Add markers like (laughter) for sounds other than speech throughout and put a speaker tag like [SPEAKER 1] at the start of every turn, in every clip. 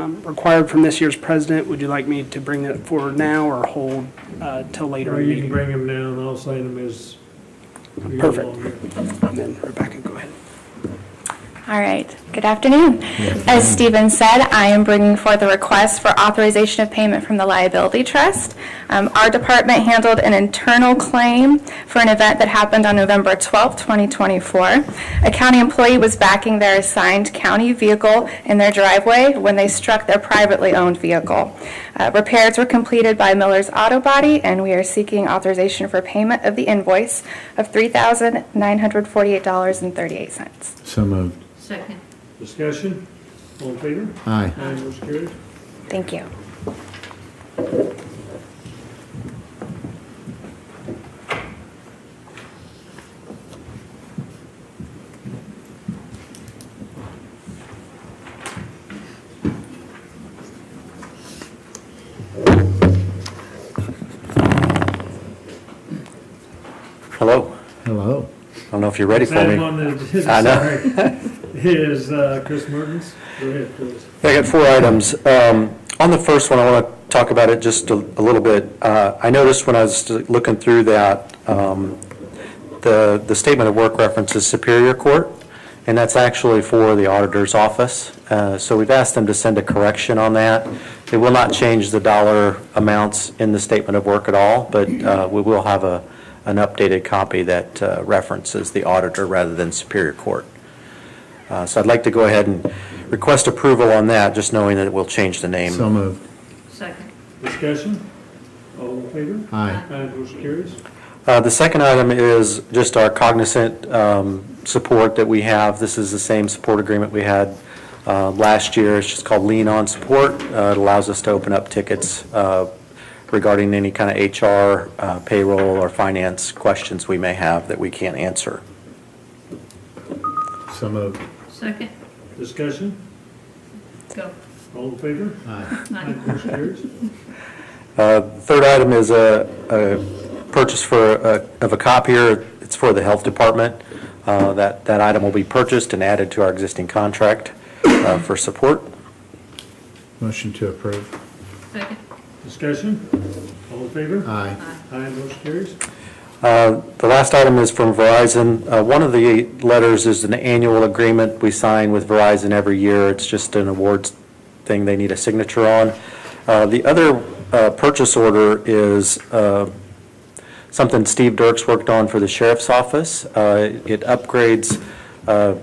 [SPEAKER 1] um, required from this year's president. Would you like me to bring that forward now or hold uh, till later
[SPEAKER 2] Or
[SPEAKER 1] in the
[SPEAKER 2] you can
[SPEAKER 1] meeting?
[SPEAKER 2] bring them down, I'll sign them as. we go
[SPEAKER 1] Perfect.
[SPEAKER 2] along here.
[SPEAKER 1] And then Rebecca, go ahead.
[SPEAKER 3] All right, good afternoon. As Stephen said, I am bringing forth a request for authorization of payment from the liability trust. Um, Our department handled an internal claim for an event that happened on November 12, 2024. A county employee was backing their assigned county vehicle in their driveway when they struck their privately owned vehicle. Uh, Repairs were completed by Miller's Auto Body, and we are seeking authorization for payment of the invoice of $3,948.38.
[SPEAKER 4] So moved.
[SPEAKER 5] Second.
[SPEAKER 2] Discussion, all in favor?
[SPEAKER 4] Aye.
[SPEAKER 2] Aye, motion carried.
[SPEAKER 3] Thank you.
[SPEAKER 6] Hello.
[SPEAKER 4] Hello.
[SPEAKER 6] I don't know if you're ready for
[SPEAKER 2] Item
[SPEAKER 6] me.
[SPEAKER 2] on (laughs) the,
[SPEAKER 6] I
[SPEAKER 2] sorry, is uh, Chris Mertens. Go ahead, please.
[SPEAKER 6] I got four items. Um, On the first one, I want to talk about it just a a little bit. Uh, I noticed when I was looking through that, um, the, the statement of work references Superior Court, and that's actually for the auditor's office. Uh, So we've asked them to send a correction on that. It will not change the dollar amounts in the statement of work at all, but uh, we will have a, an updated copy that uh, references the auditor rather than Superior Court. Uh, So I'd like to go ahead and request approval on that, just knowing that it will change the name.
[SPEAKER 4] So moved.
[SPEAKER 5] Second.
[SPEAKER 2] Discussion, all in favor?
[SPEAKER 4] Aye.
[SPEAKER 2] Aye, motion carries.
[SPEAKER 6] Uh, The second item is just our cognizant um, support that we have. This is the same support agreement we had uh, last year. It's just called Lean On Support. Uh, It allows us to open up tickets uh, regarding any kind of HR, uh, payroll, or finance questions we may have that we can't answer.
[SPEAKER 4] So moved.
[SPEAKER 5] Second.
[SPEAKER 2] Discussion,
[SPEAKER 5] Go.
[SPEAKER 2] all in favor?
[SPEAKER 4] Aye.
[SPEAKER 2] Aye, motion carries.
[SPEAKER 6] Uh, Third item is a- a purchase for, a- of a copier. It's for the Health Department. Uh, That, that item will be purchased and added to our existing contract uh, for support.
[SPEAKER 4] Motion to approve.
[SPEAKER 5] Second.
[SPEAKER 2] Discussion, all in favor?
[SPEAKER 4] Aye.
[SPEAKER 2] Aye, motion carries.
[SPEAKER 6] Uh, The last item is from Verizon. Uh, One of the letters is an annual agreement we sign with Verizon every year. It's just an awards thing they need a signature on. Uh, The other uh, purchase order is uh, something Steve Dirks worked on for the sheriff's office. Uh, It upgrades uh,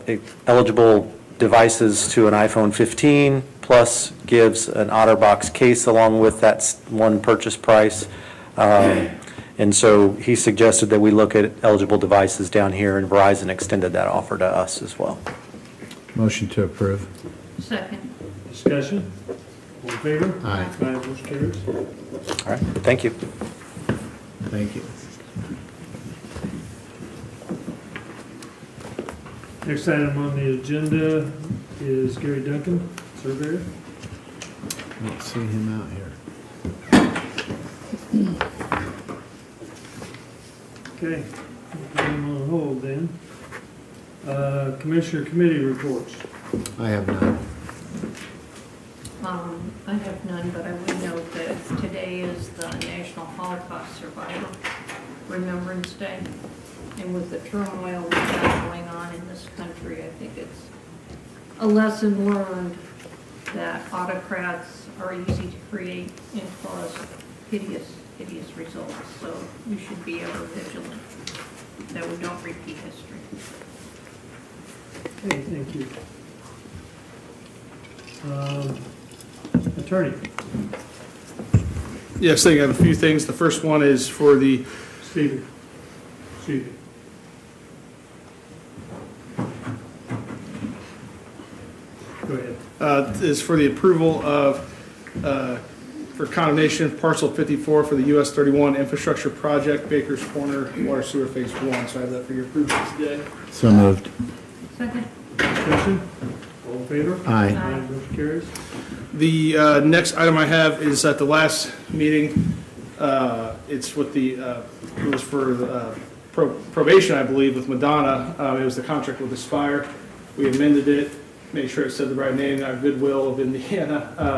[SPEAKER 6] eligible devices to an iPhone 15, plus gives an OtterBox case along with that s- one purchase price. Um, And so he suggested that we look at eligible devices down here, and Verizon extended that offer to us as well.
[SPEAKER 4] Motion to approve.
[SPEAKER 5] Second.
[SPEAKER 2] Discussion, all in favor?
[SPEAKER 4] Aye.
[SPEAKER 2] Aye, motion carries.
[SPEAKER 6] All right, thank you.
[SPEAKER 4] Thank you.
[SPEAKER 2] Next item on the agenda is Gary Duncan, surveyor.
[SPEAKER 4] Don't see him out here.
[SPEAKER 2] Okay, we'll put him on hold then. Uh, Commissioner Committee reports.
[SPEAKER 4] I have none.
[SPEAKER 5] Um, I have none, but I would note that today is the National Holocaust Survivor Remembrance Day. And with the turmoil we've got going on in this country, I think it's a lesson learned that autocrats are easy to create and cause hideous, hideous results. So we should be ever vigilant that we don't repeat history.
[SPEAKER 2] Okay, thank you. Um, Attorney,
[SPEAKER 7] Yes, I got a few things. The first one is for the,
[SPEAKER 2] Stephen, Stephen. Go ahead.
[SPEAKER 7] uh, is for the approval of, uh, for condemnation of parcel 54 for the US 31 infrastructure project, Baker's Corner, water sewer phase one. So I have that for your approval today.
[SPEAKER 4] So moved.
[SPEAKER 5] Second,
[SPEAKER 2] Discussion, all in favor?
[SPEAKER 4] Aye.
[SPEAKER 2] Aye, motion carries.
[SPEAKER 7] The uh, next item I have is at the last meeting, uh, it's with the, uh, it was for uh, pro- probation, I believe, with Madonna. Uh, It was the contract with Aspire. We amended it make sure it said the right name, not Goodwill of Indiana. Uh,